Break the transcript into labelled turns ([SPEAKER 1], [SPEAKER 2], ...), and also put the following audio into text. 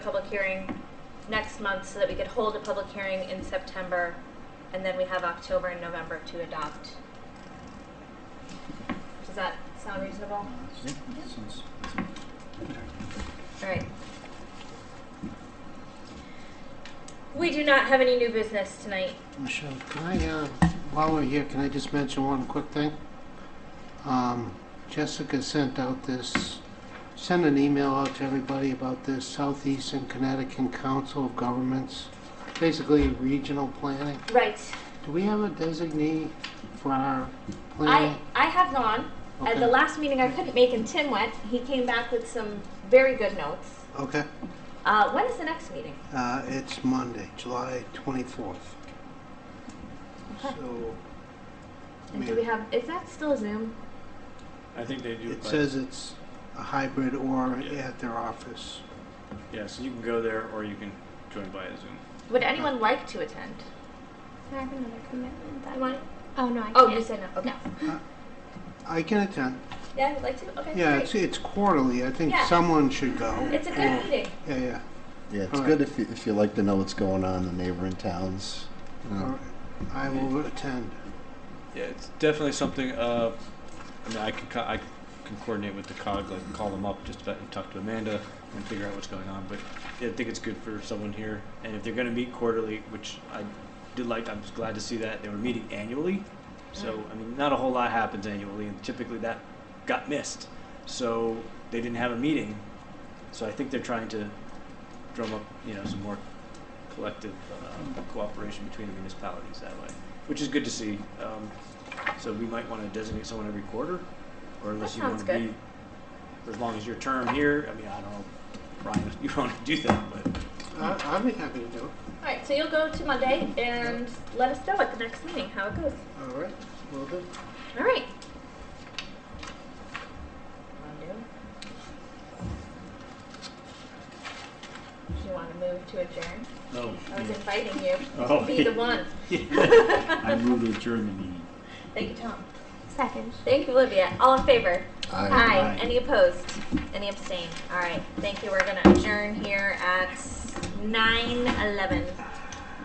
[SPEAKER 1] public hearing next month so that we could hold a public hearing in September, and then we have October and November to adopt. Does that sound reasonable?
[SPEAKER 2] Sounds-
[SPEAKER 1] All right. We do not have any new business tonight.
[SPEAKER 3] Michelle, can I, uh, while we're here, can I just mention one quick thing? Um, Jessica sent out this, sent an email out to everybody about this Southeastern Connecticut Council of Governments, basically regional planning.
[SPEAKER 1] Right.
[SPEAKER 3] Do we have a designee for our
[SPEAKER 1] I,
[SPEAKER 3] planning?
[SPEAKER 1] I have gone. At the
[SPEAKER 3] Okay.
[SPEAKER 1] last meeting I couldn't make and Tim went. He came back with some very good notes.
[SPEAKER 3] Okay,
[SPEAKER 1] Uh, when is the next meeting?
[SPEAKER 3] uh, it's Monday, July twenty-fourth.
[SPEAKER 1] Okay.
[SPEAKER 3] So, I
[SPEAKER 1] And do we
[SPEAKER 3] mean,
[SPEAKER 1] have, is that still Zoom?
[SPEAKER 2] I think they do.
[SPEAKER 3] it
[SPEAKER 2] by-
[SPEAKER 3] says it's a hybrid or
[SPEAKER 2] Yeah.
[SPEAKER 3] at their office.
[SPEAKER 2] Yeah, so you can go there or you can join via Zoom.
[SPEAKER 1] Would anyone like to attend?
[SPEAKER 4] I have another commitment. That
[SPEAKER 1] You want-
[SPEAKER 4] Oh no, I
[SPEAKER 1] Oh,
[SPEAKER 4] can't.
[SPEAKER 1] you said no. Okay.
[SPEAKER 3] I can attend.
[SPEAKER 1] Yeah, I would like to. Okay.
[SPEAKER 3] Yeah,
[SPEAKER 1] great.
[SPEAKER 3] it's, it's quarterly. I think
[SPEAKER 1] Yeah.
[SPEAKER 3] someone should go.
[SPEAKER 1] It's a
[SPEAKER 3] Yeah,
[SPEAKER 1] good meeting.
[SPEAKER 3] Yeah, yeah.
[SPEAKER 5] Yeah, it's
[SPEAKER 3] All right.
[SPEAKER 5] good if you, if you like to know what's going on in the neighboring towns. you know.
[SPEAKER 3] All right. I will attend.
[SPEAKER 2] Yeah, it's definitely something. Uh, I mean, I can co- I can coordinate with the cog, like call them up just about and talk to Amanda and figure out what's going on. But yeah, I think it's good for someone here. And if they're going to meet quarterly, which I did like, I'm just glad to see that they were meeting annually. So I mean, not a whole lot happens annually, and typically that got missed. So they didn't have a meeting. So I think they're trying to drum up, you know, some more collective uh, cooperation between the municipalities that way, which is good to see. Um, so we might want to designate someone every quarter, or unless
[SPEAKER 1] That
[SPEAKER 2] you want
[SPEAKER 1] sounds
[SPEAKER 2] to
[SPEAKER 1] good.
[SPEAKER 2] be for as long as your term here. I mean, I don't know, Ryan, if you want to do that, but
[SPEAKER 3] I, I'd be happy to do it.
[SPEAKER 1] All right. So you'll go to Monday and let us know at the next meeting how it goes.
[SPEAKER 3] All right, will do.
[SPEAKER 1] All right. Do you want to move to adjourn?
[SPEAKER 2] no.
[SPEAKER 1] I was inviting you
[SPEAKER 2] Oh.
[SPEAKER 1] to be the one.
[SPEAKER 2] I move to adjourn the meeting.
[SPEAKER 1] Thank you, Tom.
[SPEAKER 4] Second.
[SPEAKER 1] Thank you, Olivia. All in favor?
[SPEAKER 5] Aye.
[SPEAKER 1] Aye. Any opposed? Any abstain? All right. Thank you. We're going to adjourn here at 9 11.